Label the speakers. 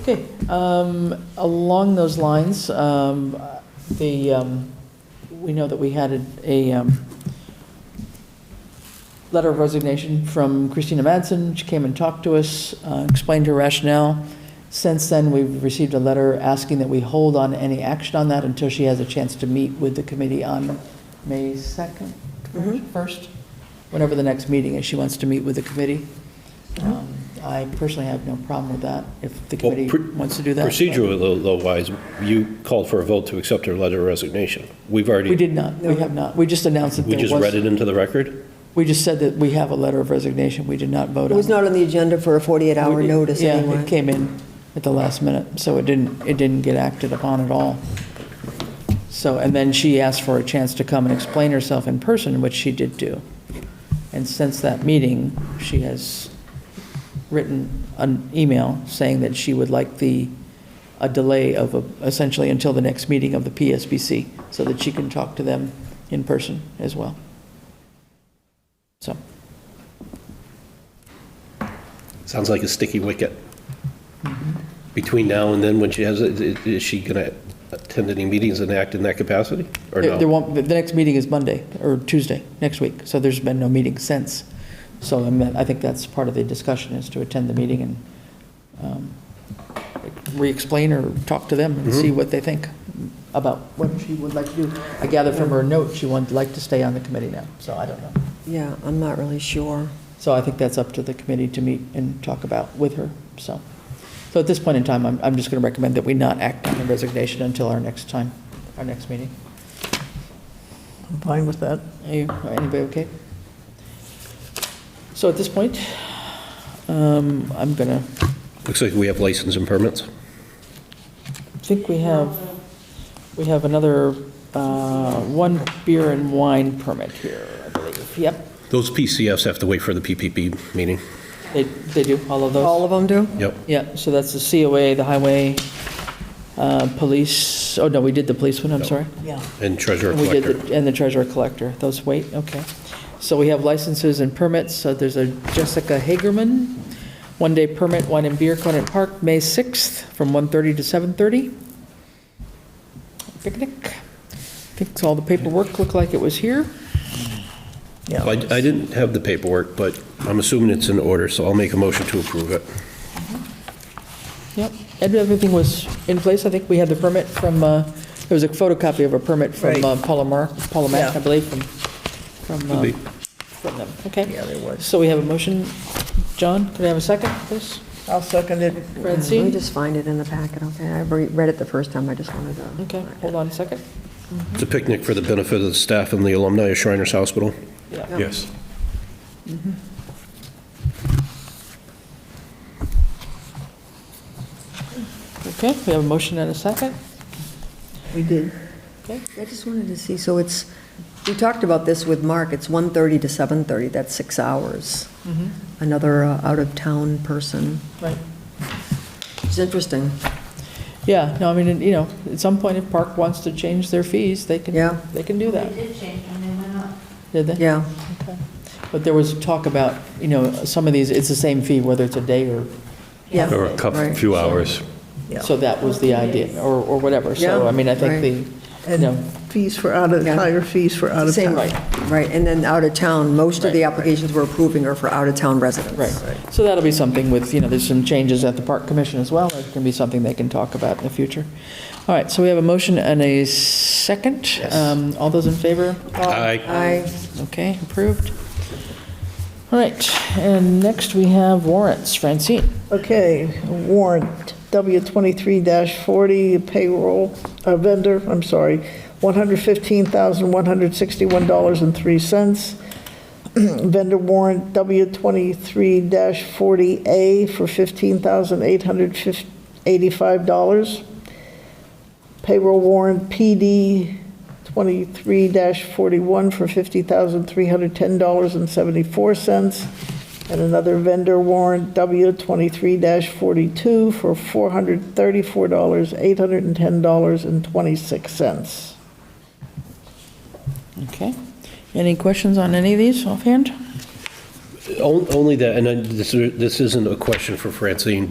Speaker 1: Okay, um, along those lines, um, the, um, we know that we had a, a, um, letter of resignation from Christina Madsen. She came and talked to us, uh, explained her rationale. Since then, we've received a letter asking that we hold on any action on that until she has a chance to meet with the committee on May 2nd,
Speaker 2: Mhm.
Speaker 1: 1st, whenever the next meeting is. She wants to meet with the committee. Um, I personally have no problem with that, if the
Speaker 3: Uh-huh. Well,
Speaker 1: committee
Speaker 3: pr-
Speaker 1: wants to do that.
Speaker 3: Procedural-wise, you called for a vote to accept her letter of resignation. We've
Speaker 1: We
Speaker 3: already,
Speaker 1: did not, we have not. We just announced that
Speaker 3: we
Speaker 1: there was.
Speaker 3: just read it into the record?
Speaker 1: We just said that we have a letter of resignation. We did not vote on
Speaker 2: It
Speaker 1: it.
Speaker 2: was not on the agenda for a 48-hour
Speaker 1: We-
Speaker 2: notice
Speaker 1: Yeah, it
Speaker 2: anyway.
Speaker 1: came in at the last minute, so it didn't, it didn't get acted upon at all. So, and then she asked for a chance to come and explain herself in person, which she did do. And since that meeting, she has written an email saying that she would like the, a delay of uh, essentially until the next meeting of the PSBC, so that she can talk to them in person as well. So,
Speaker 3: Sounds like a sticky wicket. Between now and then, when she has, it, i- is she going to attend any meetings and act in that capacity? Or
Speaker 1: There there
Speaker 3: no?
Speaker 1: won't, the the next meeting is Monday, or Tuesday, next week, so there's been no meeting since. So I mean, I think that's part of the discussion, is to attend the meeting and um, re-explain or talk to them
Speaker 3: Mm-hmm.
Speaker 1: and see what they think about what she would like to do. I gather from her note, she would like to stay on the committee now, so I don't know.
Speaker 2: Yeah, I'm not really sure.
Speaker 1: So I think that's up to the committee to meet and talk about with her, so. So at this point in time, I'm, I'm just going to recommend that we not act on the resignation until our next time, our next meeting.
Speaker 4: I'm fine with that.
Speaker 1: Are you- are Anybody okay? So at this point, um, I'm going to,
Speaker 3: Looks like we have license and permits.
Speaker 1: think we have, we have another uh, one beer and wine permit here, I believe. Yep,
Speaker 3: Those PCFs have to wait for the PPP meeting.
Speaker 1: they, they do, all of those.
Speaker 2: All of them do?
Speaker 3: Yep.
Speaker 1: Yeah, so that's the COA, the highway, uh, police, oh, no, we did the police one, I'm
Speaker 3: No.
Speaker 1: sorry.
Speaker 4: Yeah.
Speaker 3: And treasurer
Speaker 1: And we did
Speaker 3: collector.
Speaker 1: the- And the treasurer collector, those, wait, okay. So we have licenses and permits, so there's a Jessica Hagerman, one-day permit, wine and beer, Conant Park, May 6th, from 1:30 to 7:30. Picnic. I think all the paperwork looked like it was here.
Speaker 4: Yeah.
Speaker 3: I I didn't have the paperwork, but I'm assuming it's in order, so I'll make a motion to approve it.
Speaker 1: Yep, and everything was in place, I think we had the permit from, uh, there was a photocopy of a permit from
Speaker 4: Right.
Speaker 1: uh, Paula Mar, Paula Mack, I
Speaker 4: Yeah.
Speaker 1: believe, from, from,
Speaker 3: Could be.
Speaker 1: um, from them, okay?
Speaker 4: Yeah, there was.
Speaker 1: So we have a motion, John, could I have a second, please?
Speaker 4: I'll second it.
Speaker 2: Let me
Speaker 1: Francine?
Speaker 2: just find it in the packet, okay? I re- read it the first time, I just wanted to.
Speaker 1: Okay, hold on a second.
Speaker 3: It's a picnic for the benefit of the staff and the alumni of Shriners Hospital.
Speaker 1: Yeah.
Speaker 5: Yes.
Speaker 1: Okay, we have a motion and a second.
Speaker 2: We did.
Speaker 1: Okay.
Speaker 2: I just wanted to see, so it's, we talked about this with Mark, it's 1:30 to 7:30, that's six hours.
Speaker 4: Mm-hmm,
Speaker 2: Another uh, out-of-town person.
Speaker 1: Right.
Speaker 2: It's interesting.
Speaker 1: Yeah, no, I mean, and, you know, at some point, if Park wants to change their fees, they can,
Speaker 2: Yeah.
Speaker 1: they can do that,
Speaker 6: They did change them, they went up.
Speaker 1: did they?
Speaker 2: Yeah,
Speaker 1: Okay. But there was talk about, you know, some of these, it's the same fee, whether it's a day or
Speaker 2: yeah.
Speaker 5: Or a couple,
Speaker 2: Right.
Speaker 5: few hours.
Speaker 4: Yeah.
Speaker 1: So that was the idea, or, or whatever. So,
Speaker 2: Yeah,
Speaker 1: I mean, I think
Speaker 2: right.
Speaker 1: the, you
Speaker 4: And
Speaker 1: know,
Speaker 4: fees for out of,
Speaker 2: Yeah.
Speaker 4: higher fees for out of
Speaker 2: Same,
Speaker 4: town.
Speaker 2: right, right, and then out-of-town, most of the applications we're approving are for out-of-town residents.
Speaker 1: right. So that'll be something with, you know, there's some changes at the Park Commission as well. It can be something they can talk about in the future. All right, so we have a motion and a second. Um, All those in favor?
Speaker 3: Aye.
Speaker 2: I,
Speaker 1: Okay, approved. All right, and next we have warrants. Francine?
Speaker 4: Okay, warrant, W23-40 payroll, uh, vendor, I'm sorry, $115,161.03. Vendor warrant, W23-40A for $15,885. Payroll warrant, PD 23-41 for $50,310.74. And another vendor warrant, W 23-42 for $434,810.26.
Speaker 1: Okay. Any questions on any of these offhand?
Speaker 3: On- Only that, and I- this this isn't a question for Francine,